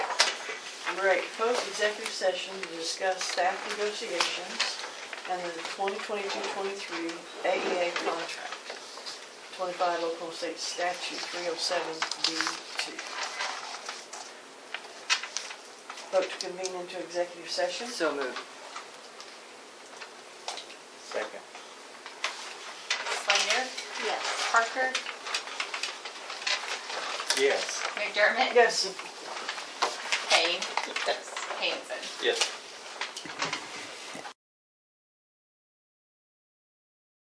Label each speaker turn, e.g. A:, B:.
A: Number eight, proposed executive session to discuss staff negotiations and the 2022-23 AEA E contract. 25 local state statute 307B2. Vote to convene into executive session.
B: So moved.
C: Second.
D: Slender,
E: Yes.
D: Parker,
C: Yes.
D: McDermott,
A: Yes.
D: Payne, Hanson.
C: Yes.